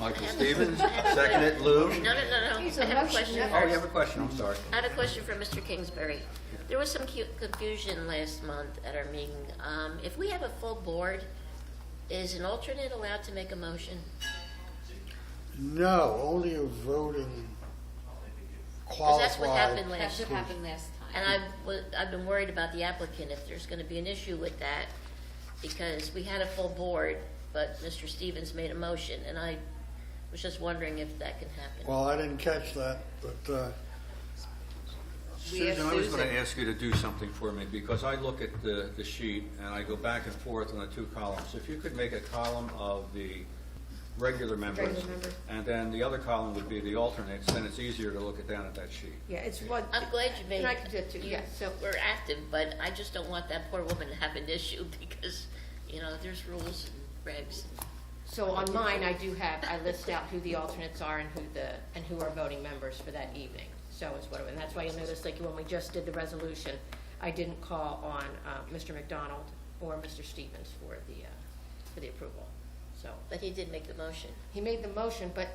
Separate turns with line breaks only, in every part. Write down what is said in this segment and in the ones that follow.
Michael Stevens, seconded Lou.
No, no, no, no.
He's
I
a
have a
Russian.
question
Oh, you have
first.
a question, I'm sorry.
I had a question for Mr. Kingsbury. There was some cu- confusion last month at our meeting. Um, If we have a full board, is an alternate allowed to make a motion?
No, only a voting
Because that's what happened
qualified.
last
That's
year.
what happened last time.
And I've, wa- I've been worried about the applicant, if there's gonna be an issue with that, because we had a full board, but Mr. Stevens made a motion, and I was just wondering if that can happen.
Well, I didn't catch that, but, uh,
We have
Susan, I was going to
Susan.
ask you to do something for me, because I look at the, the sheet, and I go back and forth on the two columns. If you could make a column of the regular members,
Regular member.
and then the other column would be the alternates, then it's easier to look it down at that sheet.
Yeah, it's one.
I'm glad you made.
And I can do it too,
you
yeah, so,
We're active, but I just don't want that poor woman to have an issue, because, you know, there's rules and regs.
so on mine, I do have, I list out who the alternates are and who the, and who are voting members for that evening. So is what, and that's why you'll notice, like, when we just did the resolution, I didn't call on, uh, Mr. McDonald or Mr. Stevens for the, uh, for the approval. So,
But he did make the motion.
he made the motion, but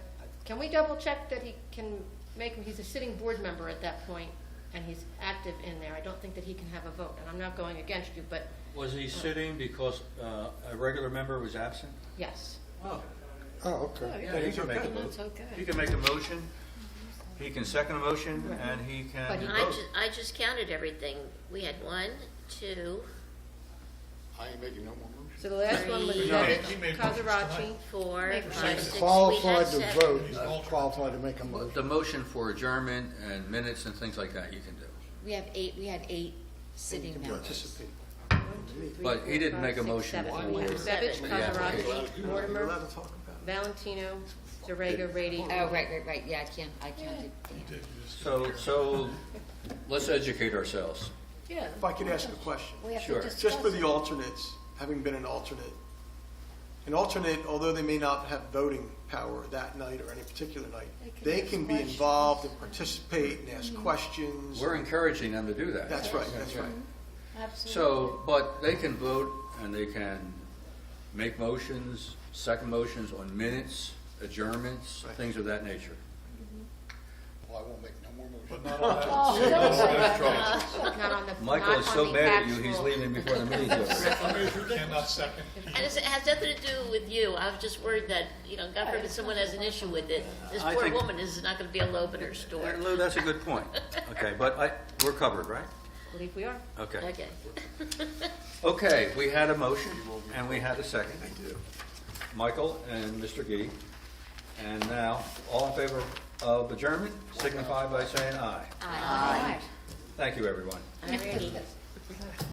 can we double check that he can make, him? he's a sitting board member at that point, and he's active in there. I don't think that he can have a vote, and I'm not going against you, but
Was he sitting because uh, a regular member was absent?
yes.
Oh,
oh, okay.
yeah, he can make a motion. He can make a motion, he can second a motion, and he
But
can
he-
I
vote.
ju, I just counted everything. We had one, two,
I ain't making no more motions.
So the last one was
Three.
No, he
Nick Cazarachi.
four,
Make
five, six. We
Qualified
had
to
seven.
vote, not qualified to make a motion.
The motion for adjournment and minutes and things like that you can do.
We have eight, we had eight sitting members.
Participate.
But he didn't make a motion for-
Savage,
Seven.
Cazarachi, Mortimer, Valentino, Zarego, Rady.
Oh, right, right, right, yeah, I can, I counted Dan.
So, so
Let's educate ourselves.
Yeah.
If I could ask a question,
We have to
Sure.
discuss.
just for
it.
the alternates, having been an alternate, an alternate, although they may not have voting power that night or any particular night,
They
they
can
can
ask questions.
be
Mm-hmm.
involved and participate and ask questions.
We're encouraging them to do that.
That's right, that's right.
So, but they can vote and they can make motions, second motions on minutes, adjournments, things of that nature.
Well, I won't make no more motions.
Not on the, not
Michael
on
is so
the
mad at you, he's
actual-
leaving before the meeting's over.
And it's- it has nothing to do with you. I was just worried that, you know, God forbid someone has an issue with it. This
I
poor
think-
woman is not gonna be able to open her store.
Lou, that's a good point. Okay, but I, we're covered, right?
I believe we are.
Okay.
Okay.
Okay, we had a motion and we had a second. Michael and Mr. Gee. And now, all in favor of adjournment, signify by saying aye.
Aye.
Thank you, everyone.
Alrighty.